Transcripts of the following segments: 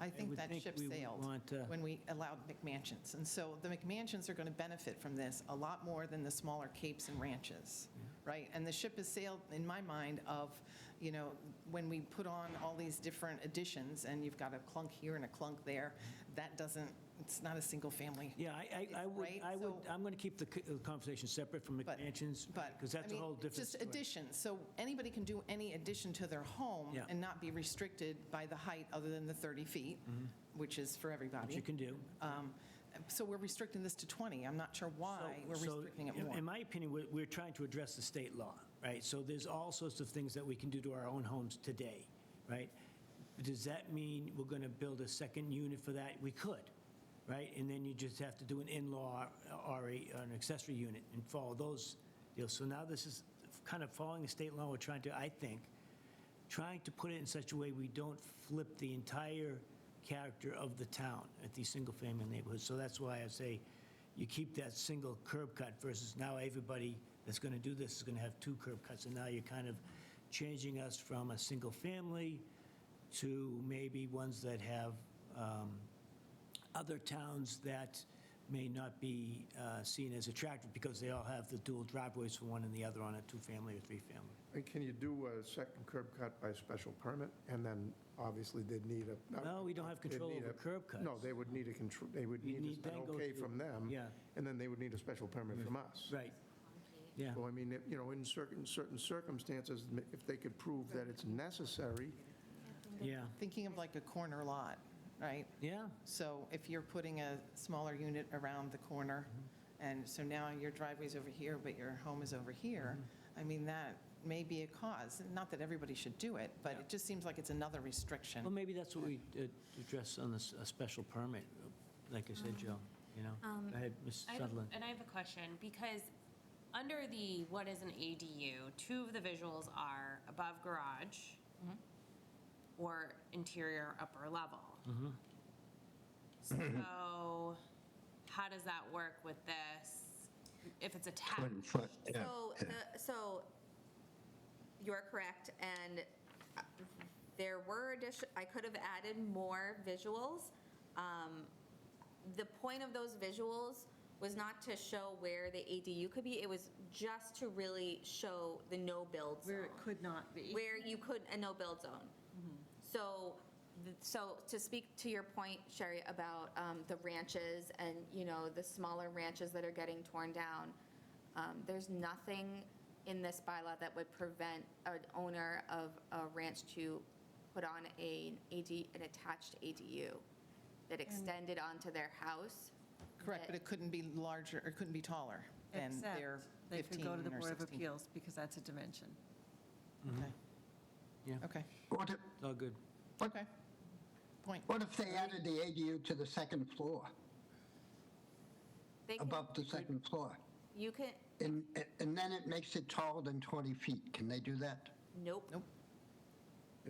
I think would that think ship we would sailed want, uh, when we allowed McMansions. And so the McMansions are going to benefit from this a lot more than the smaller capes and ranches, right? And the ship has sailed, in my mind, of, you know, when we put on all these different additions, and you've got a clunk here and a clunk there, that doesn't, it's not a single-family. Yeah, I, I- I would, Right, I would, so- I'm going to keep the c- uh, conversation separate from But- McMansions, But. because that's I a mean, whole different Just story. additions, so anybody can do any addition to their home Yeah. and not be restricted by the height other than the 30 feet, which is for everybody. Mm-hmm. Which you can do. Um, So we're restricting this to 20. I'm not sure why So- we're so, restricting it in- In more. my opinion, we're, we're trying to address the state law, right? So there's all sorts of things that we can do to our own homes today, right? Does that mean we're going to build a second unit for that? We could, right? And then you just have to do an in-law uh, or a- or an accessory unit and follow those deals. So now this is kind of following the state law, we're trying to, I think, trying to put it in such a way we don't flip the entire character of the town at these single-family neighborhoods. So that's why I say you keep that single curb cut versus now everybody that's going to do this is going to have two curb cuts. And now you're kind of changing us from a single-family to maybe ones that have um, other towns that may not be uh, seen as attractive because they all have the dual driveways for one and the other on a two-family or three-family. And can you do a second curb cut by special permit? And then, obviously, they'd need a... No, we don't have they'd control need over a- curb cuts. No, they would need a control, they would You need need a- then an go okay through- from them. yeah. And then they would need a special permit from us. Right. Yeah. So, I mean, if- you know, in certain, certain circumstances, m- if they could prove that it's necessary, Yeah, Thinking of like a corner lot, right? yeah, So if you're putting a smaller unit around the corner, Mm-hmm. and so now your driveway's over here, but your home is over here, Mm-hmm. I mean, that may be a cause. Not that everybody should do it, but it just seems like it's another restriction. well, maybe that's what we uh, address on this, a special permit, like I said, Joe, you Um, know? I had Ms. I have a- Sutherland. And I have a question, because under the what is an ADU, two of the visuals are above garage or interior upper level. So how does that work with this, if it's Twenty attached? foot, yeah. So, the- so you're correct, and uh, there were addition, I could have added more visuals. Um, The point of those visuals was not to show where the ADU could be, it was just to really show the no-build zone. Where it could not be. Where you could, a no-build zone. So, th- so to speak to your point, Sherry, about um, the ranches and, you know, the smaller ranches that are getting torn down, um, there's nothing in this bylaw that would prevent an owner of a ranch to put on a AD, an attached ADU that extended onto their house. Correct, but it couldn't be larger, or it couldn't be taller than Except their they could 15 go to the or Board of 16. Appeals because that's a dimension. Okay. Mm-hmm. Yeah. Okay, What if, All good. okay. Point. what if they added the ADU to the second floor, They can- above the second floor? You can, And, and then it makes it taller than 20 feet. Can they do that? nope. Nope.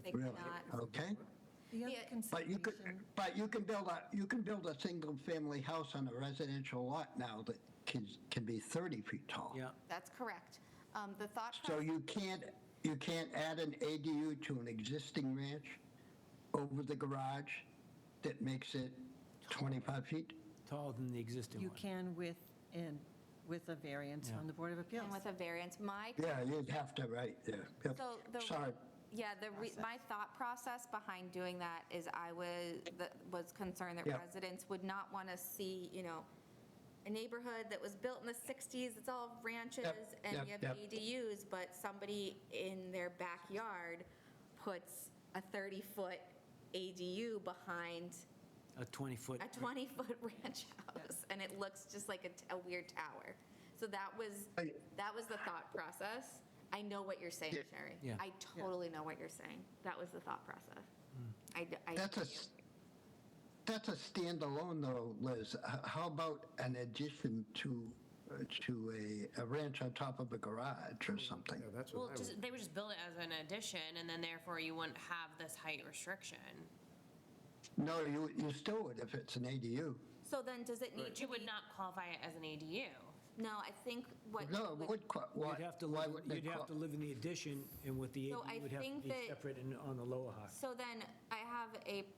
They Really? cannot. Okay? The other Yeah, But you could, consideration, but you can build a, you can build a single-family house on a residential lot now that can, can be 30 feet tall. Yeah, That's correct. Um, The thought So process you can't, you can't add an ADU to an existing ranch over the garage that makes it 25 feet? taller than the existing you one. can with, and with a variance from the Board of Appeals. and with a variance, my Yeah, you'd have to, right, yeah. Yep. So the- Sorry. Yeah, the, re- my thought process behind doing that is I was, that was concerned that Yeah. residents would not want to see, you know, a neighborhood that was built in the 60s, it's all ranches, and yep, you have yep. ADUs, but somebody in their backyard puts a 30-foot ADU behind A 20-foot. a 20-foot ranch house, and it looks just like a t- a, weird tower. So that was, I- that was the thought process. I know what you're saying, Sherry. Yeah. I totally know what you're saying. That was the thought process. I, d- I That's a, hear you. s- that's a standalone though, Liz. H- How about an addition to, uh, to a, a ranch on top of a garage or something? yeah, that's Well, what I would... just, they would just build it as an addition, and then therefore you wouldn't have this height restriction. No, you, you still would if it's an ADU. So then, does it need to You be? would not qualify it as an ADU. No, I think what. No, would- it would, qua- why, You'd have to why live, wouldn't it you'd have to qua- live in the addition, and with the So I ADU, would have to think be that- separate and on the lower half. So then, I have a